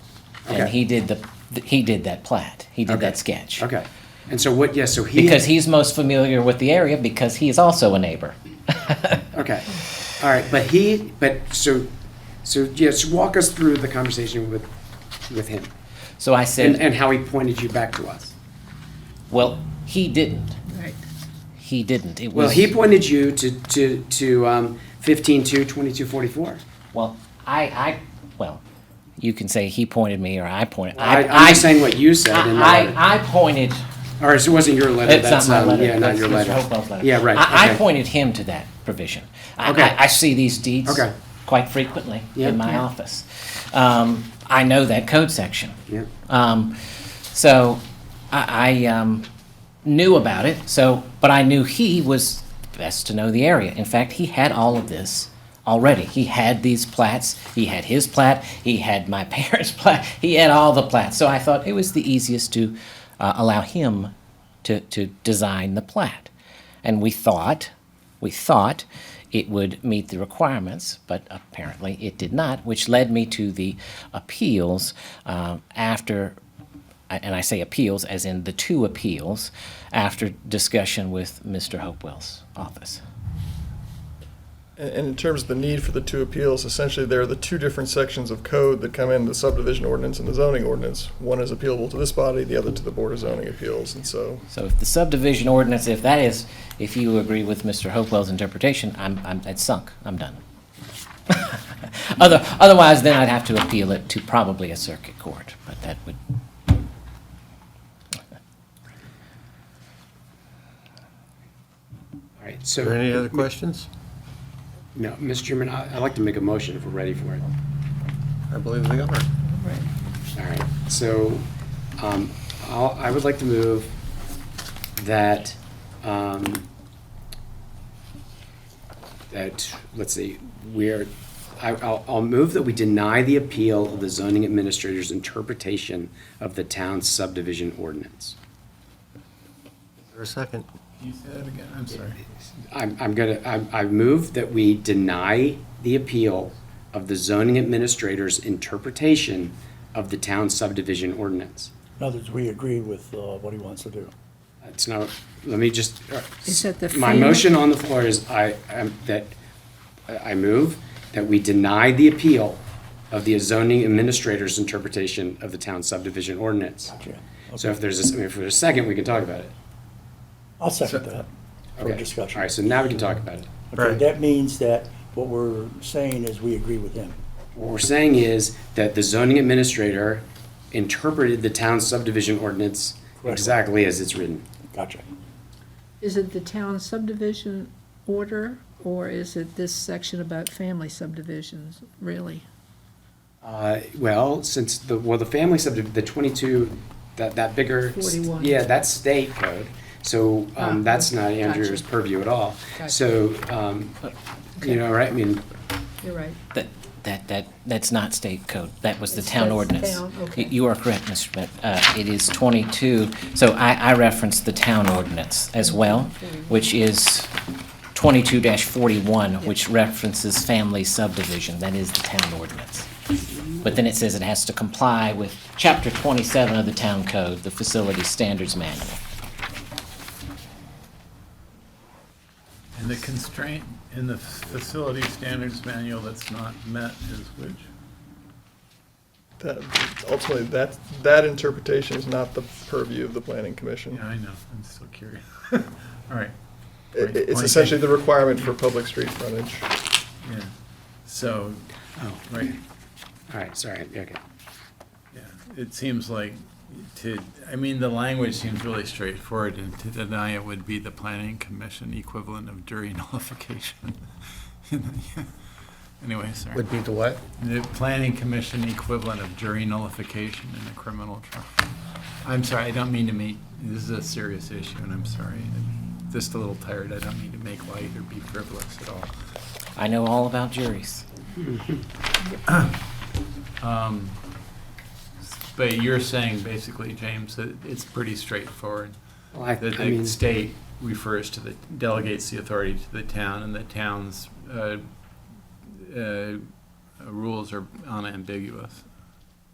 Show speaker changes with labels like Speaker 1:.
Speaker 1: and
Speaker 2: Okay.
Speaker 1: he did the, he did that plat. He did
Speaker 2: Okay.
Speaker 1: that sketch.
Speaker 2: Okay. And so what, yes, so he.
Speaker 1: Because he's most familiar with the area because he is also a neighbor.
Speaker 2: Okay. All right, but he, but so, so yes, walk us through the conversation with, with him
Speaker 1: So I
Speaker 2: and,
Speaker 1: said,
Speaker 2: and how he pointed you back to us.
Speaker 1: well, he didn't.
Speaker 3: Right.
Speaker 1: He didn't. It was.
Speaker 2: Well, he pointed you to, to, to, um, fifteen two twenty-two forty-four.
Speaker 1: Well, I, I, well, you can say he pointed me or I pointed.
Speaker 2: I, I'm just saying what you said in the
Speaker 1: I,
Speaker 2: letter.
Speaker 1: I, I pointed.
Speaker 2: Or it wasn't your letter,
Speaker 1: It's
Speaker 2: that's,
Speaker 1: not my
Speaker 2: um,
Speaker 1: letter.
Speaker 2: yeah, not
Speaker 1: that's
Speaker 2: your
Speaker 1: Mr.
Speaker 2: letter.
Speaker 1: Hopewell's letter.
Speaker 2: Yeah, right,
Speaker 1: I, I
Speaker 2: okay.
Speaker 1: pointed him to that provision. I,
Speaker 2: Okay.
Speaker 1: I, I see these deeds
Speaker 2: Okay.
Speaker 1: quite frequently
Speaker 2: Yeah.
Speaker 1: in my
Speaker 2: Yeah.
Speaker 1: office. Um, I know that code section.
Speaker 2: Yeah.
Speaker 1: Um, so I, I um, knew about it. So, but I knew he was best to know the area. In fact, he had all of this already. He had these plats. He had his plat. He had my parents' plat. He had all the plats. So I thought it was the easiest to uh, allow him to to design the plat. And we thought, we thought it would meet the requirements, but apparently it did not, which led me to the appeals um, after, and I say appeals as in the two appeals, after discussion with Mr. Hopewell's office.
Speaker 4: And and in terms of the need for the two appeals, essentially, there are the two different sections of code that come in, the subdivision ordinance and the zoning ordinance. One is appealable to this body, the other to the Board of Zoning Appeals, and so
Speaker 1: So if the subdivision ordinance, if that is, if you agree with Mr. Hopewell's interpretation, I'm, I'm, it's sunk, I'm done. Other, otherwise, then I'd have to appeal it to probably a circuit court, but that would,
Speaker 2: All right,
Speaker 5: Are there any
Speaker 2: so,
Speaker 5: other questions?
Speaker 2: no, Mr. Chairman, I, I'd like to make a motion if we're ready for it.
Speaker 5: I believe they are.
Speaker 3: Right.
Speaker 2: All right, so um, I'll- I would like to move that, um, that, let's see, we're, I- I'll I'll move that we deny the appeal of the zoning administrator's interpretation of the town's subdivision ordinance.
Speaker 5: For a second.
Speaker 6: You say that again, I'm sorry.
Speaker 2: I'm I'm gonna, I I move that we deny the appeal of the zoning administrator's interpretation of the town's subdivision ordinance.
Speaker 7: In other words, we agree with uh, what he wants to do.
Speaker 2: It's not, let me just. uh,
Speaker 3: Is that the
Speaker 2: My
Speaker 3: FEMA?
Speaker 2: motion on the floor is I, I'm- that, I I move that we deny the appeal of the zoning administrator's interpretation of the town subdivision ordinance.
Speaker 7: Gotcha.
Speaker 2: So if there's, a- I mean, if there's a second, we can talk about it.
Speaker 7: I'll second that for
Speaker 2: Okay.
Speaker 7: discussion.
Speaker 2: All right, so now we can talk about it.
Speaker 7: Okay,
Speaker 5: Right.
Speaker 7: that means that what we're saying is we agree with him.
Speaker 2: What we're saying is that the zoning administrator interpreted the town subdivision ordinance
Speaker 7: Correct.
Speaker 2: exactly as it's written.
Speaker 7: Gotcha.
Speaker 3: Is it the town subdivision order, or is it this section about family subdivisions, really?
Speaker 2: Uh, well, since the, well, the family subdivision, the twenty-two, that, that bigger. s-
Speaker 3: 41.
Speaker 2: Yeah, that's state code, so, um,
Speaker 3: Ah,
Speaker 2: that's not
Speaker 3: gotcha.
Speaker 2: Andrew's purview at all.
Speaker 3: Gotcha.
Speaker 2: So, um, you know, right, I mean,
Speaker 3: You're right.
Speaker 1: that, that, that, that's not state code. That was the
Speaker 3: It's-
Speaker 1: town
Speaker 3: that's
Speaker 1: ordinance.
Speaker 3: town,
Speaker 1: Y-
Speaker 3: okay.
Speaker 1: You are correct, Mr. Schmidt. Uh, it is twenty-two, so I, I referenced the town ordinance as well,
Speaker 3: Mm-hmm.
Speaker 1: which is twenty-two forty-one, which references family subdivision. That is the town ordinance. But then it says it has to comply with chapter twenty-seven of the town code, the facility standards manual.
Speaker 6: And the constraint in the facility standards manual that's not met is which?
Speaker 4: that, ultimately, that, that interpretation is not the purview of the Planning Commission.
Speaker 6: Yeah, I know, I'm still curious. All right,
Speaker 4: It-
Speaker 6: Right.
Speaker 4: It's essentially the requirement for public street frontage.
Speaker 6: yeah, so,
Speaker 2: oh,
Speaker 6: right,
Speaker 2: all right, sorry, okay.
Speaker 6: yeah, it seems like to, I mean, the language seems really straightforward, and to deny it would be the planning commission equivalent of jury nullification. Anyway, sorry.
Speaker 5: Would be the what?
Speaker 6: The planning commission equivalent of jury nullification in a criminal trial. I'm sorry, I don't mean to make, this is a serious issue, and I'm sorry. I'm Just a little tired, I don't mean to make light or be frivolous at all.
Speaker 1: I know all about juries.
Speaker 6: Um, But you're saying basically, James, that it's pretty straightforward.
Speaker 2: Well, I,
Speaker 6: That
Speaker 2: I mean,
Speaker 6: the state refers to the, delegates the authority to the town, and the town's uh, uh, rules are unambiguous.